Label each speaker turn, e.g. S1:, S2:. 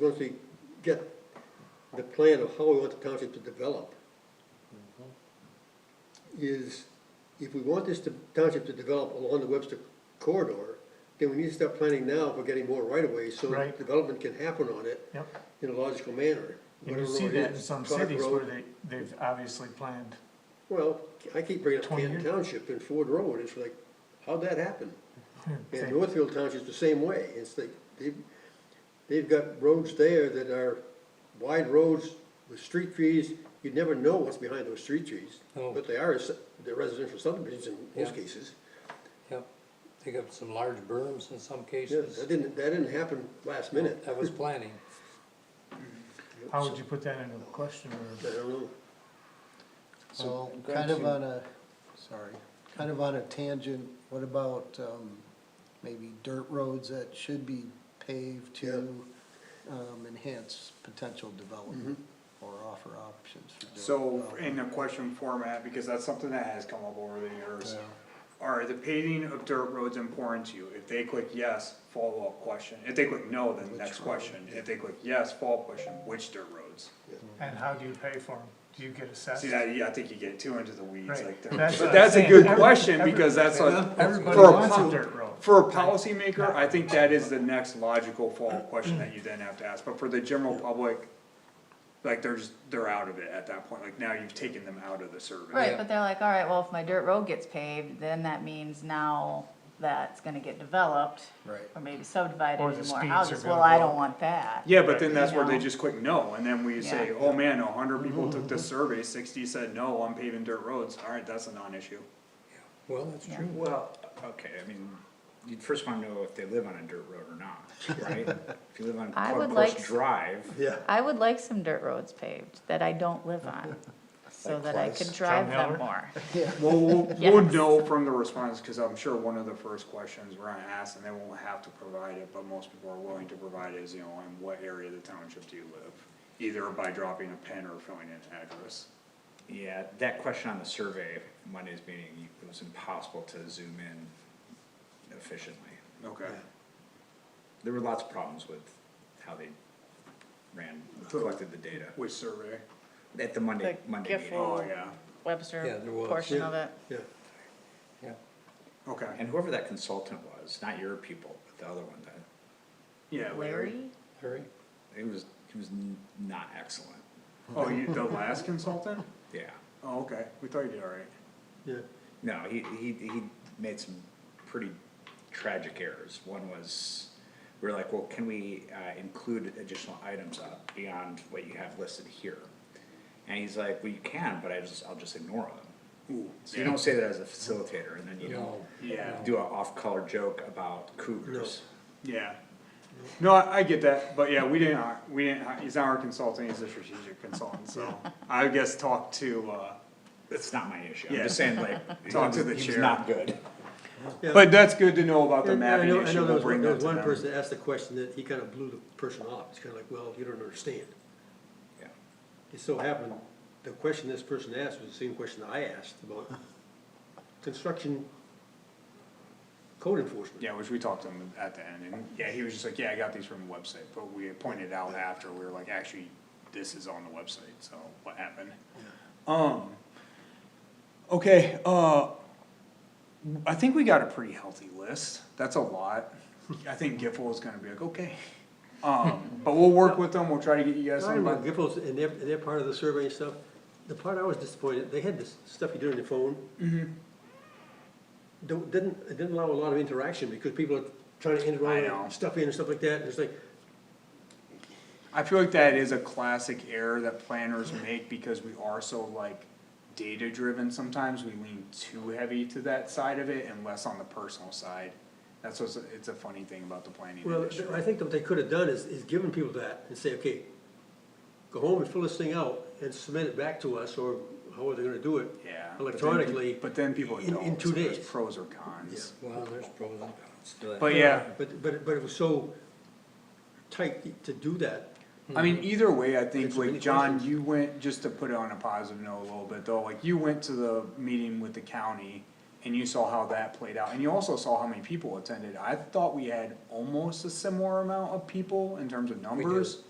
S1: once we get the plan of how we want the township to develop, is if we want this to- township to develop along the Webster corridor, then we need to start planning now for getting more right-of-ways, so
S2: Right.
S1: development can happen on it
S2: Yep,
S1: in a logical manner.
S2: and you
S1: Whatever
S2: see
S1: road it
S2: that in
S1: is,
S2: some
S1: Clark
S2: cities
S1: Road.
S2: where they, they've obviously planned,
S1: Well, I keep bringing up
S2: 20
S1: Canton
S2: years?
S1: Township and Ford Road, it's like, how'd that happen? And
S2: they-
S1: Northfield Township's the same way, it's like, they've, they've got roads there that are wide roads with street trees, you'd never know what's behind those street trees.
S3: Oh.
S1: But they are, s- they're residential subdivisions in most
S3: Yeah.
S1: cases.
S3: Yep, they got some large berms in some
S1: Yeah,
S3: cases.
S1: that didn't, that didn't happen last minute.
S3: That was planning.
S2: how would you put that into a question
S1: I
S2: or?
S1: don't know,
S4: So,
S5: Go
S4: kind of
S5: to-
S4: on a, sorry, kind of on a tangent, what about, um, maybe dirt roads that should be paved to, um, enhance potential development or offer options for dirt?
S5: So,
S4: development?
S5: in a question format, because that's something that has come up over the years,
S4: Yeah.
S5: are the paving of dirt roads important to you? If they click yes, follow-up question. If they click no, then
S4: Which
S5: next
S4: road?
S5: question. If they click yes, follow-up question, which dirt roads?
S2: And how do you pay for them? Do you get assessed?
S5: See, that, yeah, I think you get too into the weeds
S2: Right.
S5: like
S2: That's
S5: that.
S2: what
S5: But
S2: I'm
S5: that's a
S2: saying.
S5: good
S2: Every-
S5: question,
S2: every-
S5: because that's a,
S2: Everybody
S5: for a
S2: wants a
S5: pol-
S2: dirt road.
S5: for a policymaker, I think that is the next logical follow-up question that you then have to ask. But for the general public, like, there's, they're out of it at that point. Like, now you've taken them out of the survey.
S3: Yeah.
S6: Right, but they're like, all right, well, if my dirt road gets paved, then that means now that's gonna get developed.
S4: Right.
S6: Or maybe
S2: Or
S6: subdivided
S2: the
S6: into more
S2: speeds are
S6: houses,
S2: gonna
S6: well, I
S2: go
S6: don't
S2: up.
S6: want that.
S5: Yeah, but then
S6: Right.
S5: that's where
S6: You
S5: they
S6: know?
S5: just click no, and then we say,
S6: Yeah.
S5: oh man, a hundred
S7: Mm-hmm,
S5: people took this survey, sixty said no, I'm paving dirt roads, alright, that's a non-issue.
S3: Well, that's
S6: Yeah.
S3: true.
S7: Well, okay, I mean, you'd first wanna know if they live on a dirt road or not, right? If you live on
S6: I would
S7: Club
S6: like
S7: Bush
S6: s-
S7: Drive,
S1: yeah.
S6: I would like some dirt roads paved that I don't live on, so
S7: Like
S6: that I
S7: Clive's
S6: could drive
S2: John Miller?
S6: them more.
S5: We'll, we'll, we'll
S6: Yes.
S5: know from the response, cause I'm sure one of the first questions we're gonna ask, and they won't have to provide it, but most people are willing to provide is, you know, in what area of the township do you live? Either by dropping a pin or filling in an address.
S7: yeah, that question on the survey, Monday's meeting, it was impossible to zoom in efficiently.
S5: Okay,
S7: There were lots of problems with how they ran, collected the data
S5: which survey?
S7: at the Monday,
S6: The
S7: Monday
S6: GIF
S7: meeting.
S6: will-
S5: Oh, yeah,
S3: Yeah,
S6: Webster
S3: there was.
S6: portion
S1: Yeah.
S6: of it.
S1: Yeah,
S3: Yeah,
S5: okay,
S7: And whoever that consultant was, not your people, but the other one, that,
S5: yeah.
S6: Larry?
S3: Larry?
S7: it was, it was n- not excellent,
S5: Oh, you, the last consultant?
S7: yeah.
S5: Oh, okay, we thought you did alright.
S1: yeah,
S7: No, he, he, he made some pretty tragic errors. One was, we were like, well, can we, uh, include additional items up beyond what you have listed here? And he's like, well, you can, but I just, I'll just ignore them.
S5: Ooh,
S7: So you don't say that as a facilitator, and then you
S3: No.
S7: don't
S5: Yeah.
S7: do an off-color joke about cougars.
S5: Yeah. No, I, I get that, but yeah, we didn't, hi- we didn't, hi- he's not our consultant, he's a strategic consultant, so I guess talk to, uh,
S7: That's not my issue. I'm
S5: Yeah.
S7: just saying, like,
S5: Talk to the
S7: he was
S5: chair.
S7: not good.
S1: yeah.
S5: but that's good to know about the
S1: And- and I
S5: mapping
S1: know- I know
S5: issue,
S1: there
S5: we'll
S1: was
S5: bring
S1: one- there
S5: that
S1: was
S5: to
S1: one
S5: them.
S1: person asked the question that he kind of blew the person off, it's kind of like, well, you don't understand.
S7: Yeah.
S1: It so happened, the question this person asked was the same question I asked about construction code enforcement.
S5: Yeah, which we talked to him at the end, and yeah, he was just like, yeah, I got these from the website, but we had pointed out after, we were like, actually, this is on the website, so what happened? Um, okay, uh, I think we got a pretty healthy list, that's a lot. I think Giffel is gonna be like, okay, um, but we'll work with them, we'll try to get you guys
S1: I
S5: some,
S1: remember
S5: but,
S1: Giffords and their, and their part of the survey and stuff, the part I was disappointed, they had this stuff you do on your phone.
S5: Mm-hmm.
S1: Don't, didn't, it didn't allow a lot of interaction because people are trying to
S5: I know.
S1: enter, stuff in and stuff like that, and it's like,
S5: I feel like that is a classic error that planners make because we are so like data driven sometimes, we lean too heavy to that side of it and less on the personal side. That's what's, it's a funny thing about the planning
S1: Well,
S5: industry.
S1: I think what they could have done is, is given people that and say, okay, go home and fill this thing out and submit it back to us, or how are they gonna do it?
S5: Yeah. but then pe-
S1: Electronically.
S5: But then people
S1: in-
S5: don't,
S1: In
S5: so
S1: two
S5: there's
S1: days.
S5: pros or cons.
S3: Well, there's pros and cons to it.
S5: But yeah,
S1: But, but, but it was so tight to do that,
S5: I mean, either way, I think,
S1: Hmm. It's really
S5: like, John,
S1: questions.
S5: you went, just to put it on a positive note a little bit though, like, you went to the meeting with the county. and you saw how that played out, and you also saw how many people attended. I thought we had almost a similar amount of people in terms of numbers.